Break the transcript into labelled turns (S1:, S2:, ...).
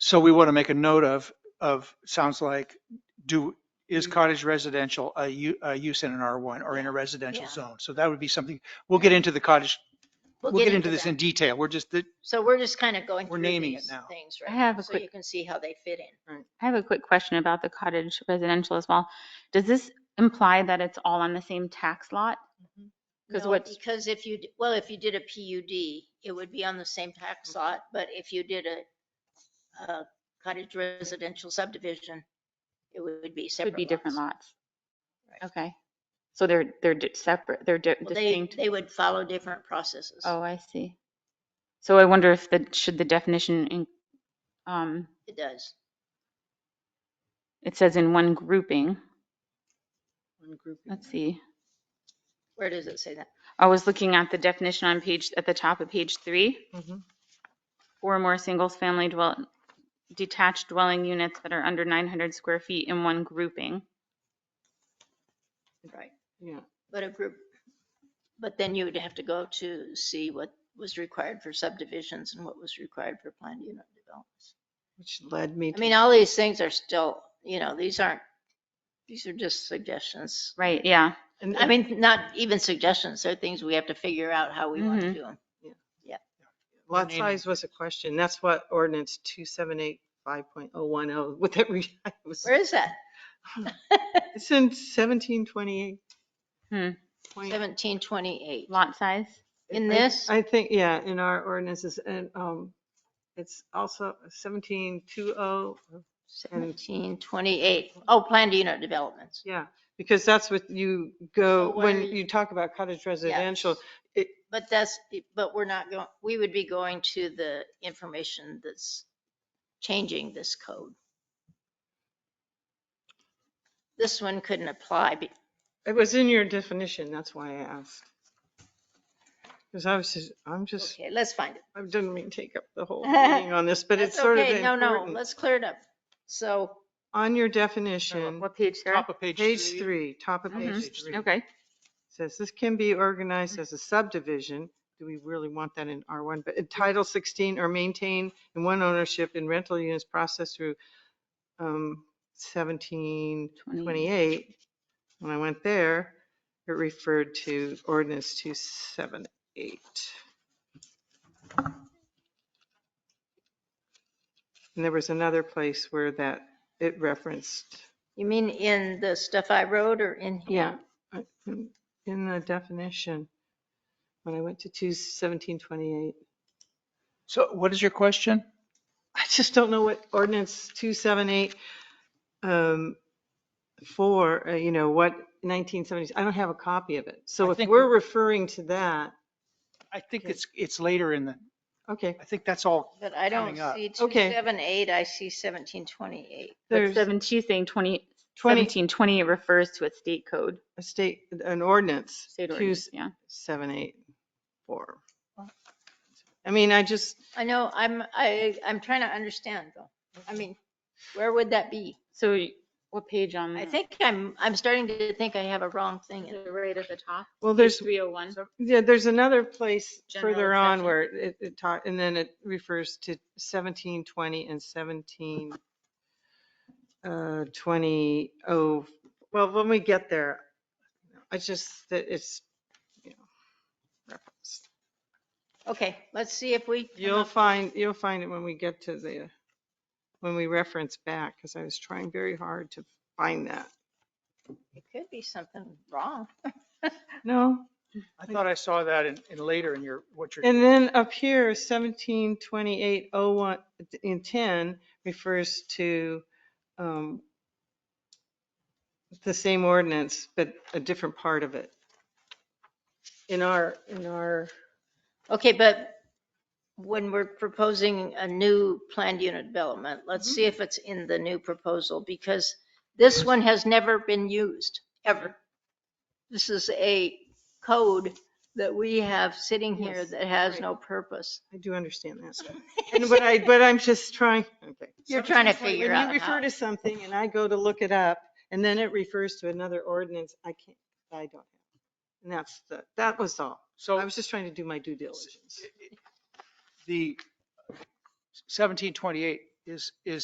S1: So we want to make a note of, of, sounds like, do, is cottage residential a u, a use in an R1 or in a residential
S2: Yeah.
S1: zone? So that would be something, we'll get into the cottage,
S2: We'll
S1: we'll get into this
S2: that.
S1: in detail. We're just, the-
S2: So we're just kind of going
S1: We're
S2: through
S1: naming it
S2: these
S1: now.
S2: things,
S3: I
S2: right?
S3: have a
S2: So
S3: quick-
S2: you can see how they fit in.
S3: I have a quick question about the cottage residential as well. Does this imply that it's all on the same tax lot? 'Cause
S2: No,
S3: what's-
S2: Because if you, d- well, if you did a PUD, it would be on the same tax lot, but if you did a, a cottage residential subdivision, it would be
S3: It
S2: separate.
S3: would be different lots.
S2: Right.
S3: Okay. So they're, they're di- separate, they're di-
S2: Well, They,
S3: distinct.
S2: they would follow different processes.
S3: Oh, I see. So I wonder if the, should the definition, in- um,
S2: It does.
S3: it says in one grouping. Let's see.
S2: Where does it say that?
S3: I was looking at the definition on page, at the top of page three. Four or more singles-family dwell, detached dwelling units that are under 900 square feet in one grouping. Mm-hmm.
S2: Right.
S4: Yeah.
S2: But a group, but then you would have to go to see what was required for subdivisions and what was required for planned unit developments.
S4: Which led me
S2: I
S4: to,
S2: mean, all these things are still, you know, these aren't, these are just suggestions.
S3: Right, yeah.
S4: and
S2: I
S4: and
S2: mean, not even suggestions, they're things we have to figure out how we want to
S3: Mhm.
S2: do them.
S4: lot
S1: name-
S4: size was a question. That's what ordinance two seven eight five point oh one oh, with that, re- it was,
S2: Where is that?
S4: it's in seventeen twenty-eight.
S3: Hmm.
S4: Oh,
S2: Seventeen twenty-eight.
S3: Lot size?
S2: In
S4: I-
S2: this?
S4: I think, yeah, in our ordinances and, um, it's also seventeen two oh,
S2: Seventeen twenty-eight. Oh, planned unit developments.
S4: yeah, because that's what you go,
S2: So where
S4: when
S2: you-
S4: you talk about cottage residential,
S2: But that's, but we're not going, we would be going to the information that's changing this code. This one couldn't apply, be-
S4: it was in your definition, that's why I asked. Because I was just, I'm just,
S2: okay, let's find it.
S4: I didn't mean to take up the whole meeting on this, but it's
S2: That's
S4: sort of
S2: okay. No, no,
S4: important.
S2: let's clear it up. So
S4: On your definition,
S3: What page, Sarah?
S1: top of page three.
S4: page three, top of
S2: Mm-hmm.
S3: Mhm.
S4: page three,
S3: Okay,
S4: says this can be organized as a subdivision. Do we really want that in R1? But in Title 16 or maintain in one ownership in rental units processed through um, 1728. When I went there, it referred to ordinance 278. And there was another place where that, it referenced,
S2: you mean in the stuff I wrote or in? here?
S4: yeah, uh, in in the definition, when I went to 2 1728.
S1: So what is your question?
S4: I just don't know what ordinance 278, um, for, uh, you know, what 1970s, I don't have a copy of it.
S1: I
S4: So if
S1: think-
S4: we're referring to that,
S1: I think
S4: Okay.
S1: it's, it's later in the,
S4: okay,
S1: I think that's all.
S2: But I don't
S1: Coming up.
S2: see two
S4: Okay.
S2: seven eight, I see seventeen twenty-eight.
S3: but
S4: there's
S3: seven, she's saying 20,
S4: 20,
S3: 1720 refers to a state code,
S4: a state, an ordinance,
S3: state ordinance, yeah.
S4: 2784. I mean, I just,
S2: I know, I'm, I, I'm trying to understand though. I mean, where would that be?
S3: So y- what page on?
S4: Mm.
S2: I think I'm, I'm starting to think I have a wrong thing. in it.
S3: Right at the top,
S4: well,
S3: page
S4: there's,
S3: 301.
S4: yeah, there's another place
S3: General
S4: further on
S3: exception.
S4: where it, it taught, and then it refers to 1720 and 17, uh, 20, oh, well, when we get there, I just, that it's, you know, referenced.
S2: Okay, let's see if we. come
S4: You'll
S2: up-
S4: find, you'll find it when we get to the, when we reference back, because I was trying very hard to find that.
S2: It could be something wrong.
S4: No,
S1: I thought I saw that in, in later in your, what you're.
S4: And then up here, seventeen twenty-eight oh one, in ten refers to, um, the same ordinance, but a different part of it. In our, in our,
S2: Okay, but when we're proposing a new planned unit development,
S4: Mm-hmm.
S2: let's see if it's in the new proposal because this one has never been used, ever. This is a code that we have sitting here
S4: Yes,
S2: that has
S4: right.
S2: no purpose.
S4: I do understand that. And what I, but I'm just trying, okay.
S2: You're trying to
S4: 1728,
S2: figure out
S4: When you
S2: how.
S4: refer to something and I go to look it up, and then it refers to another ordinance, I can't, I don't. And that's the, that was all. I
S1: So
S4: was just trying to do my due diligence.
S1: the 1728 is, is